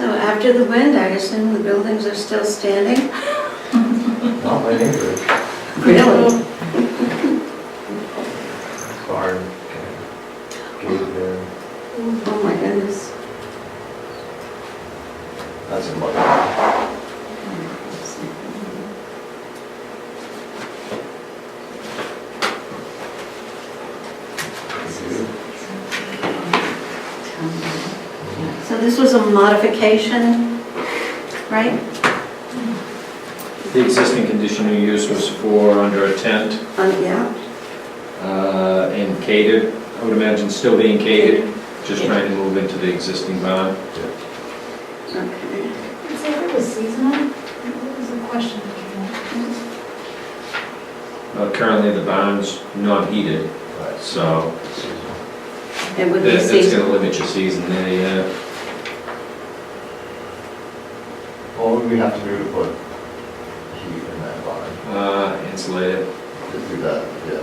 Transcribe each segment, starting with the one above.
After the wind, I assume the buildings are still standing? Not my neighborhood. Really? Barn, and gate there, Oh, my goodness. that's in my, So this was a modification, right? The existing conditional use was for under a tent Um, Yeah. uh, and catered, I would imagine still being catered, just trying to move into the existing barn. Okay. Is it was seasonal? What was the question? that came up? Uh, Currently, the barn's not heated, right, so seasonal. It would that- be that's going seasonal. to limit your season there, yeah. What would we have to do to put heat in that barn? Uh, Insulated. To do that, yeah,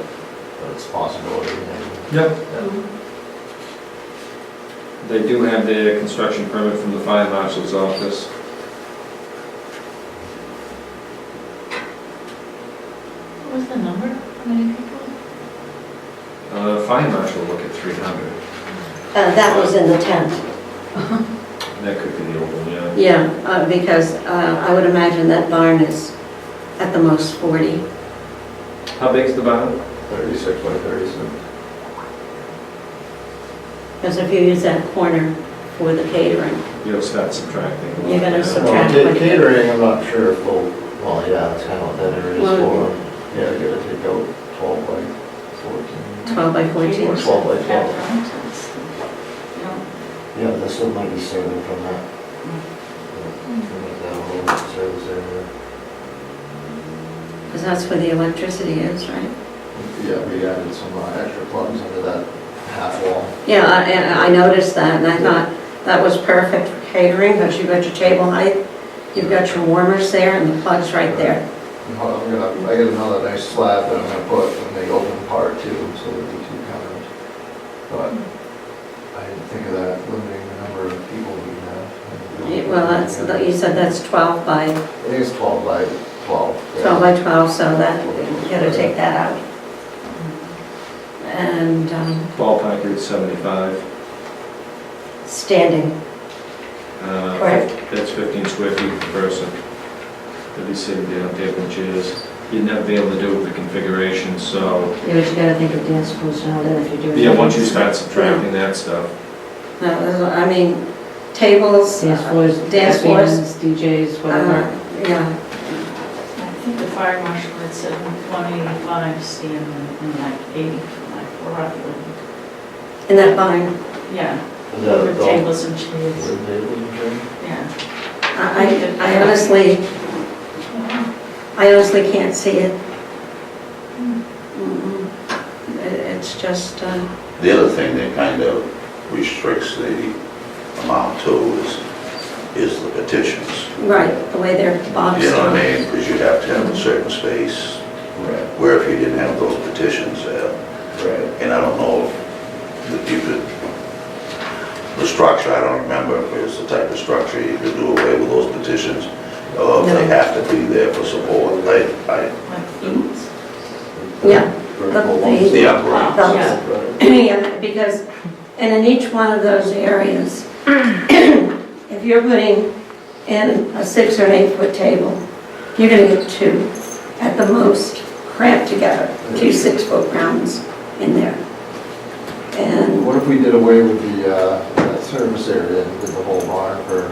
but it's possible, yeah. Yep. Mm. They do have their construction permit from the fire marshal's office. What was the number? How many people? Uh, Fire marshal will look at 300. Uh, That was in the tent, That could be the old one, yeah. yeah, uh, because uh, I would imagine that barn is at the most 40. How big's the barn? Thirty-six by thirty-seven. Because if you use that corner for the catering, You'll start subtracting. a lot, You're gonna yeah. sub- Well, Okay. ca- catering, I'm not sure if we'll, well, yeah, that's kind of what that area is Well- for. Yeah, you gotta take out twelve by fourteen. 12 by 14. Or twelve by twelve. Mountains. No. Yeah, this one might be saving from that. Mm. Yeah, Make that a little service area. Because that's where the electricity is, right? Yeah, we added some uh, extra plugs under that half wall. Yeah, I- and I noticed that, and I thought that was perfect for catering, because you've got your table height, you've got your warmers there, and the plug's right there. Uh, I'm gonna, I got another nice slab that I'm gonna put in the open part too, so there'll be two counters. But I didn't think of that, limiting the number of people we Yeah, have. Well, that's, you said that's 12 by, I think it's twelve by twelve. yeah. 12 by 12, so that, you gotta take that out. Mm-hmm. And um, Ballpark Route 75. standing, Uh, Correct. That's 15 square feet per person. They'll be sitting down, table and chairs. You'd never be able to do it with the configuration, so, you know, you gotta think of dance schools and all that if you're doing. yeah, once you start subtracting that stuff. No, I mean, tables, Dance floors, Dance floors. bands, DJs, Uh-huh. whatever. uh, yeah. I think the fire marshal had said 185 standing and like 80 for like Rockland. In that barn, Yeah, Is that with adult? tables and chairs, Wood table, you think? yeah. I I I honestly, I honestly can't see it. Mm-mm. It- It's just, uh, The other thing that kind of restricts the amount to is, is the petitions. right, the way they're boxed. You know what in. I mean? Because you'd have to have a certain space, Right, where if you didn't have those petitions there, right. and I don't know if you could, the structure, I don't remember if it's the type of structure you could do away with those petitions, or if they No. have to be there for support, like, I, Like feet. Yeah, Vertical but ones. they- the upright. Those- Right. Yeah, because, and in each one of those areas, if you're putting in a six or an eight foot table, you're gonna get two, at the most, cramped together, two six foot rounds in there. And What if we did away with the, uh, that service area and did the whole barn for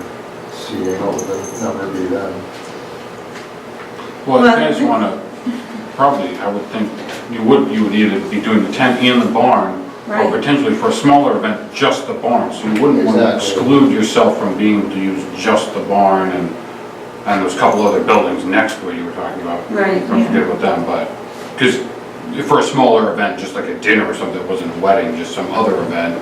seating, what would the number be then? Well, Well- you guys want to, probably, I would think, you would, you would either be doing the tent and the barn, Right. or potentially for a smaller event, just the barn. So you wouldn't want to Exactly. exclude yourself from being able to use just the barn and, and there's a couple other buildings next where you were talking about. Right, Don't yeah. forget about them, but, because for a smaller event, just like a dinner or something, that wasn't a wedding, just some other event,